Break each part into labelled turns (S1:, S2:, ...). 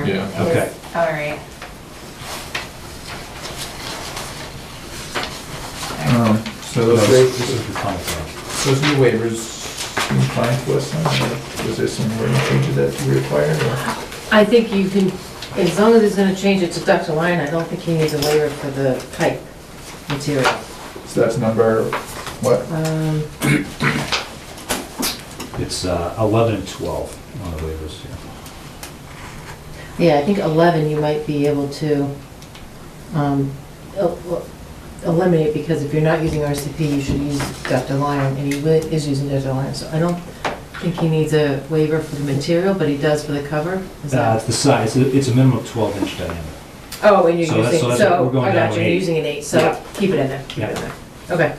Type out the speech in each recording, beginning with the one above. S1: Yeah.
S2: is-
S3: Okay.
S2: All right.
S1: Um, So those
S3: This
S1: waivers,
S3: is the final thing.
S1: those new waivers seem fine to us, huh? was there some wording changes that you required? or-
S4: I think you can, as long as it's gonna change it to ductile iron, I don't think he needs a waiver for the pipe material.
S1: So that's number, what?
S4: Um,
S3: It's uh, 11 and 12 on the waivers here.
S4: Yeah, I think 11 you might be able to um, el- el- eliminate, because if you're not using RCP, you should use ductile iron, and he wi- is using ductile iron, so I don't think he needs a waiver for the material, but he does for the cover? Is
S3: Uh,
S4: that?
S3: It's the size, it- it's a minimum of 12 inch diameter.
S4: Oh, and you're
S3: so that's-
S4: using,
S3: so that's what
S4: so,
S3: we're going
S4: I
S3: down
S4: got
S3: to
S4: you, you're
S3: eight.
S4: using an eight,
S3: Yeah.
S4: so keep it in there. keep it in
S3: Yeah.
S4: there. Okay,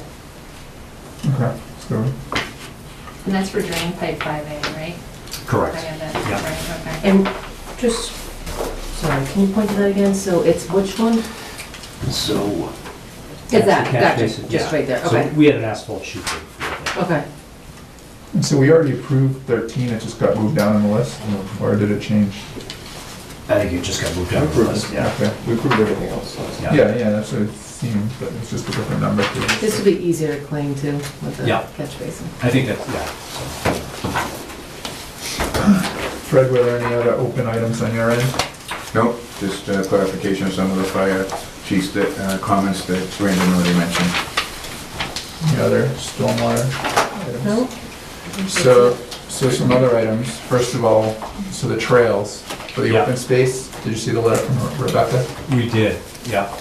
S1: Okay, so,
S2: And that's for drain pipe 5A, right? I
S3: Correct.
S2: have that,
S3: Yeah.
S2: right, okay.
S4: and just, sorry, can you point to that again? So it's which one?
S3: So.
S4: Is that,
S3: That's the catch
S4: gotcha,
S3: basin,
S4: just
S3: yeah.
S4: right there,
S3: So
S4: okay,
S3: We had an asphalt chute. there.
S4: okay.
S1: and so we already approved thirteen, it just got moved down on the list, or did it change?
S3: I think it just got moved down the list, yeah.
S1: Okay, we approved everything else.
S3: Yeah.
S1: Yeah, yeah, that's what it seemed, but it's just a different number.
S4: This would be easier to clean too, with the
S3: Yeah.
S4: catch basin.
S3: I think that's, yeah.
S1: Fred, were there any other open items on your end?
S5: Nope, just uh, clarification of some of the fire chief's that, uh, comments that Brandon already mentioned.
S1: Any other stormwater items?
S4: No?
S1: So, so some other items. First of all, so the trails for the
S3: Yeah.
S1: open space, did you see the letter from Rebecca?
S3: We did, yeah.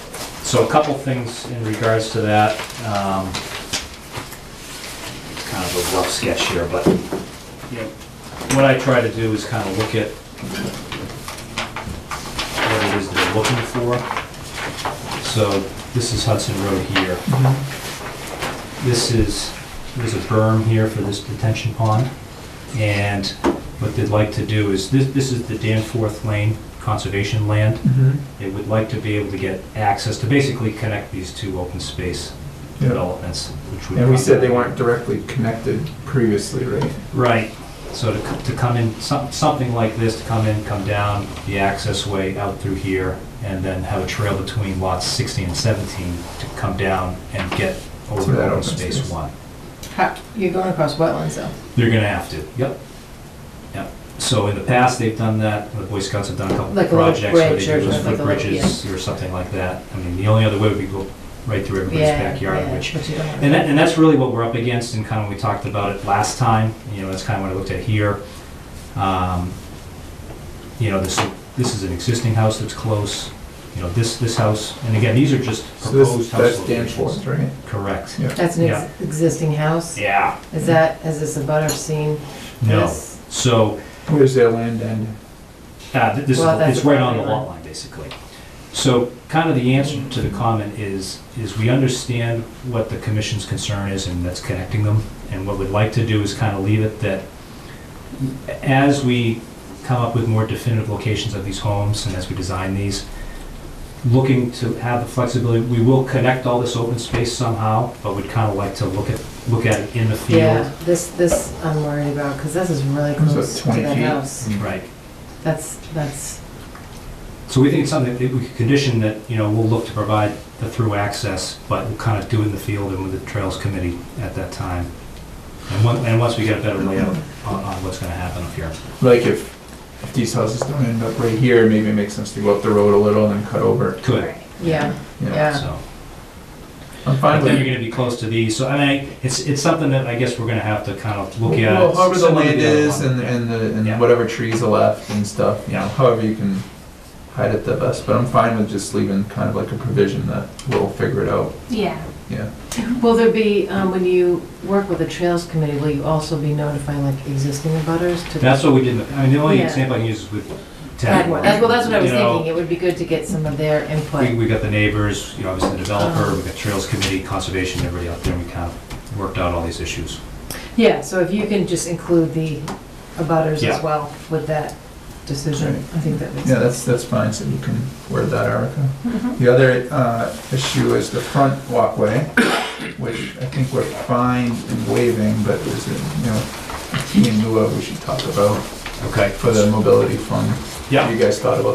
S3: So a couple things in regards to that. um, It's kind of a rough sketch here, but you know, what I try to do is kind of look at what it is they're looking for. So this is Hudson Road here. This is, there's a berm here for this detention pond. And what they'd like to do is, this, this is the Danforth Lane Conservation Land
S1: Mm-hmm.
S3: they would like to be able to get access to basically connect these two open space developments. which would-
S1: And we said they weren't directly connected previously, right?
S3: Right, so to, c- to come in, some- something like this, to come in, come down the access way out through here, and then have a trail between lots 16 and 17 to come down and get
S1: To
S3: over
S1: that
S3: open
S1: open
S3: space
S1: space.
S3: one.
S4: How- You're going across wetlands though.
S3: They're gonna have to, yep. Yep, so in the past, they've done that, the Boy Scouts have done a couple
S4: Like a little
S3: projects where they
S4: bridge or
S3: do those
S4: something, like a little-
S3: footbridges or something like that. I mean, the only other way would be go right through everybody's
S4: Yeah,
S3: backyard,
S4: yeah,
S3: which
S4: but you don't want
S3: And
S4: to-
S3: that, and that's really what we're up against, and kind of, we talked about it last time, you know, that's kind of what I looked at here. Um, You know, this, this is an existing house that's close, you know, this, this house, and again, these are just
S1: So
S3: proposed
S1: this,
S3: house
S1: that's
S3: locations.
S1: Danforth, right?
S3: Correct.
S1: Yeah.
S4: That's an
S3: yeah.
S4: ex- existing house?
S3: Yeah,
S4: Is that, has this abutter seen
S3: no,
S4: this?
S3: so,
S1: Where's their land end?
S3: uh, th- this is,
S4: Well, that's
S3: it's right on the
S4: the property
S3: lot line, basically. So kind of the answer to the comment is, is we understand what the commission's concern is, and that's connecting them, and what we'd like to do is kind of leave it that as we come up with more definitive locations of these homes and as we design these, looking to have the flexibility, we will connect all this open space somehow, but we'd kind of like to look at, look at it in the
S4: Yeah,
S3: field.
S4: this, this I'm worried about, because this is really
S1: Is that
S4: close to
S1: 20
S4: that
S1: feet?
S4: house.
S3: Mm-hmm. Right.
S4: That's, that's,
S3: So we think it's something that we could condition that, you know, we'll look to provide the through access, but we'll kind of do it in the field and with the Trails Committee at that time. And once, and once we get a better layout on, on what's gonna happen up here.
S1: Like if, if these houses don't end up right here, maybe it makes sense to go up the road a little and then cut over.
S3: Could,
S4: yeah,
S1: you know.
S4: Yeah.
S3: so.
S1: I'm fine with
S3: But then you're
S1: it.
S3: gonna be close to these, so I mean, it's, it's something that I guess we're gonna have to kind of look at.
S1: Well, however the
S3: Similar to
S1: land
S3: other
S1: is
S3: one.
S1: and, and the,
S3: Yeah.
S1: and whatever trees are left and stuff, you know,
S3: Yeah.
S1: however you can hide it the best, but I'm fine with just leaving kind of like a provision that we'll figure it out,
S2: Yeah,
S1: yeah.
S4: Will there be, um, when you work with the Trails Committee, will you also be notifying like existing abutters to?
S3: That's what we did, in the- I mean, the only
S4: Yeah.
S3: example I can use is with
S4: That
S3: Tadmore.
S4: one. That's- Well, that's what I was
S3: You know,
S4: thinking, it would be good to get some of their
S3: We,
S4: input.
S3: we got the neighbors, you know, obviously the developer,
S4: Um.
S3: we got Trails Committee, Conservation, everybody out there, and we kind of worked out all these issues.
S4: Yeah, so if you can just include the abutters
S3: Yeah.
S4: as well with that decision, I think that makes
S1: Yeah,
S4: sense.
S1: that's, that's fine, so you can word that, Erica. The other, uh, issue is the front walkway, which I think we're fine in waiving, but is, you know, a key in lieu of we should talk about
S3: Okay.
S1: for the mobility fund.
S3: Yeah.
S1: You guys thought about